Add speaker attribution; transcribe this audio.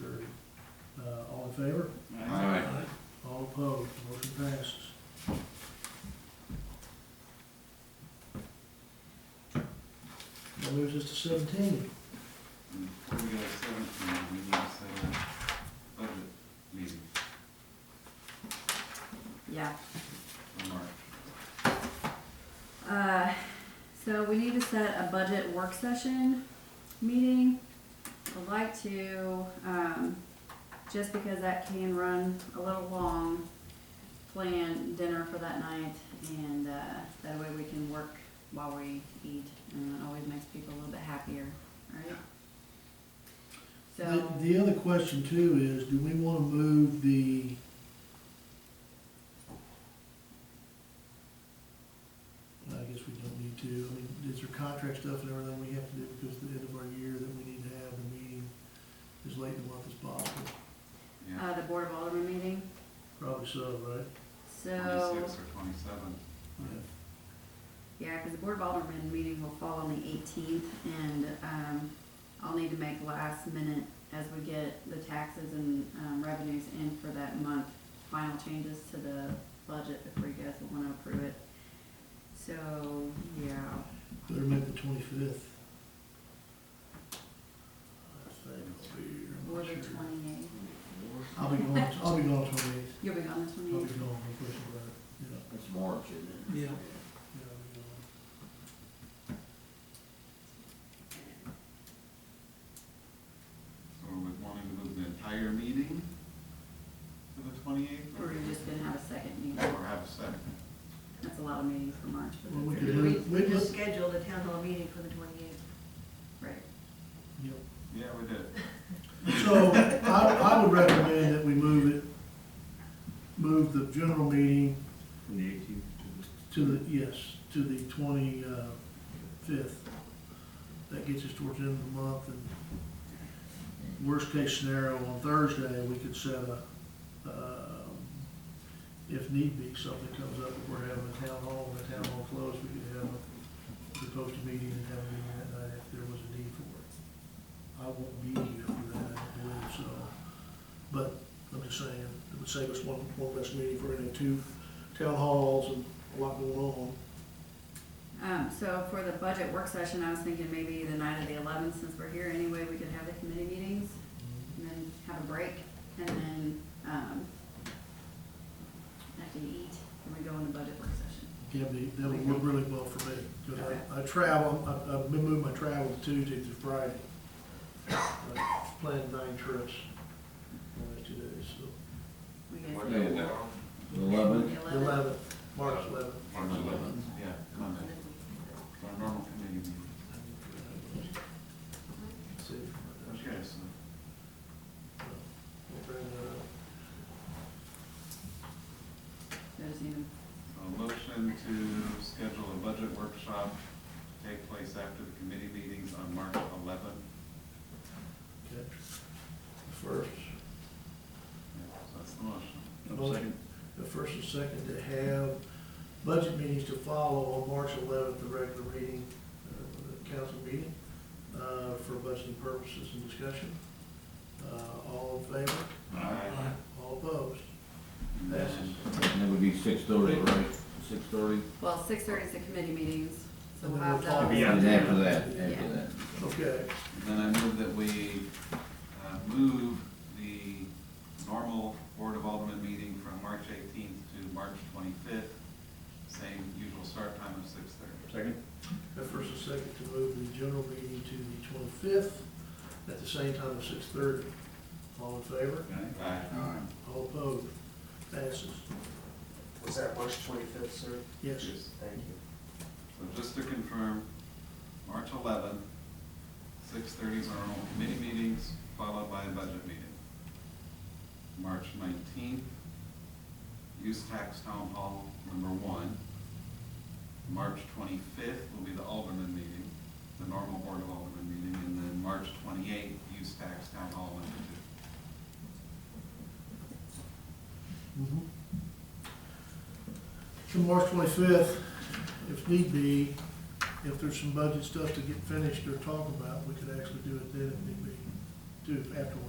Speaker 1: thirty. Uh, all in favor?
Speaker 2: Aye.
Speaker 1: All opposed, motion passes. That moves us to seventeen.
Speaker 3: Before we go to seventeen, we need to set a budget meeting
Speaker 4: Yeah,
Speaker 3: for March.
Speaker 4: uh, so we need to set a budget work session meeting. I'd like to, um, just because that can run a little long, plan dinner for that night and, uh, that way we can work while we eat and it always makes people a little bit happier, alright?
Speaker 1: The,
Speaker 4: So,
Speaker 1: the other question too is, do we wanna move the I guess we don't need to, I mean, is there contract stuff and everything we have to do because at the end of our year that we need to have the meeting as late in the month as possible?
Speaker 3: Yeah,
Speaker 4: uh, the Board of Alderman meeting,
Speaker 1: Probably so, right?
Speaker 4: Uh, so,
Speaker 3: twenty-six or twenty-seven.
Speaker 1: Yeah.
Speaker 4: Yeah, because the Board of Aldermen meeting will fall on the eighteenth, and, um, I'll need to make last minute as we get the taxes and, um, revenues in for that month, final changes to the budget before you guys will wanna approve it. So, yeah,
Speaker 1: Better make the twenty-fifth. I think I'll be here. I'm
Speaker 4: or
Speaker 1: not
Speaker 4: the
Speaker 1: sure.
Speaker 4: twenty-eighth.
Speaker 1: I'll be going, I'll be going twenty-eighth,
Speaker 4: You'll be on the
Speaker 1: I'll be
Speaker 4: twenty-eighth?
Speaker 1: going, no question about it, yeah,
Speaker 2: It's March, isn't
Speaker 1: it? Yeah. yeah, I'll be gone.
Speaker 3: So we're wanting to move the entire meeting to the twenty-eighth?
Speaker 4: Or you're just gonna have a second meeting?
Speaker 3: Or have a second?
Speaker 4: That's a lot of meetings for March, but
Speaker 1: Well, we
Speaker 4: that's
Speaker 1: could
Speaker 4: okay.
Speaker 1: do
Speaker 5: We
Speaker 1: it, we
Speaker 5: just
Speaker 1: just,
Speaker 5: scheduled a town hall meeting for the twenty-eighth.
Speaker 4: Right.
Speaker 1: yep.
Speaker 3: Yeah, we did.
Speaker 1: So I, I would recommend that we move it, move the general meeting
Speaker 2: From the eighteenth
Speaker 1: to the, yes, to the twenty-fifth. That gets us towards the end of the month and worst case scenario, on Thursday, we could set a, um, if need be, something comes up, if we're having a town hall, and the town hall closed, we could have a, we could post a meeting and have a meeting that night if there was a need for it. I won't be here for that, I don't believe, so, but I'm just saying, it would save us one, one less meeting for any two town halls and a lot going on.
Speaker 4: Um, so for the budget work session, I was thinking maybe the night of the eleventh, since we're here anyway, we could have the committee meetings and then have a break and then, um, after you eat, and we go on the budget work session.
Speaker 1: Yeah, but that would work really well for me, because I, I travel, I, I've been moving my travel to Tuesday through Friday. I Planned nine trips, in those two days, so,
Speaker 4: We guys-
Speaker 3: What day is that?
Speaker 2: Eleven.
Speaker 1: the
Speaker 4: The 11th.
Speaker 1: eleventh, March eleventh.
Speaker 3: March eleventh, yeah, Monday. It's our normal committee meeting.
Speaker 1: See.
Speaker 3: Okay, so
Speaker 1: We'll bring that
Speaker 4: So just need
Speaker 3: a motion to schedule a budget workshop to take place after the committee meetings on March eleventh.
Speaker 1: up. Okay. First,
Speaker 3: Yeah, so that's the motion.
Speaker 1: motion, the first and second to have budget meetings to follow on March eleventh, the regular meeting, uh, the council meeting, uh, for budgeting purposes and discussion. Uh, all in favor?
Speaker 3: Aye.
Speaker 1: All opposed?
Speaker 3: And then-
Speaker 2: And that would be six thirty, right? Six thirty?
Speaker 4: to- Well, six thirty is the committee meetings, so
Speaker 1: And
Speaker 4: we'll
Speaker 1: then
Speaker 4: have
Speaker 1: we'll talk.
Speaker 4: those.
Speaker 2: And after that,
Speaker 4: Yeah.
Speaker 2: after that.
Speaker 1: Okay,
Speaker 3: Then I move that we uh, move the normal Board of Alderman meeting from March 18th to March 25th, same usual start time of 6:30.
Speaker 2: Second?
Speaker 1: the first and second to move the general meeting to the twenty-fifth at the same time of six thirty. All in favor?
Speaker 3: Aye.
Speaker 1: All opposed? Passes.
Speaker 6: Was that March twenty-fifth, sir?
Speaker 1: Yes.
Speaker 6: Thank you.
Speaker 3: So just to confirm, March 11th, 6:30 is our normal committee meetings, followed by a budget meeting. March 19th, use tax town hall number one. March 25th will be the Alderman meeting, the normal Board of Alderman meeting, and then March 28th, use tax town hall number two.
Speaker 1: Mhm. To March twenty-fifth, if need be, if there's some budget stuff to get finished or talk about, we could actually do it then if need be, do it afterwards.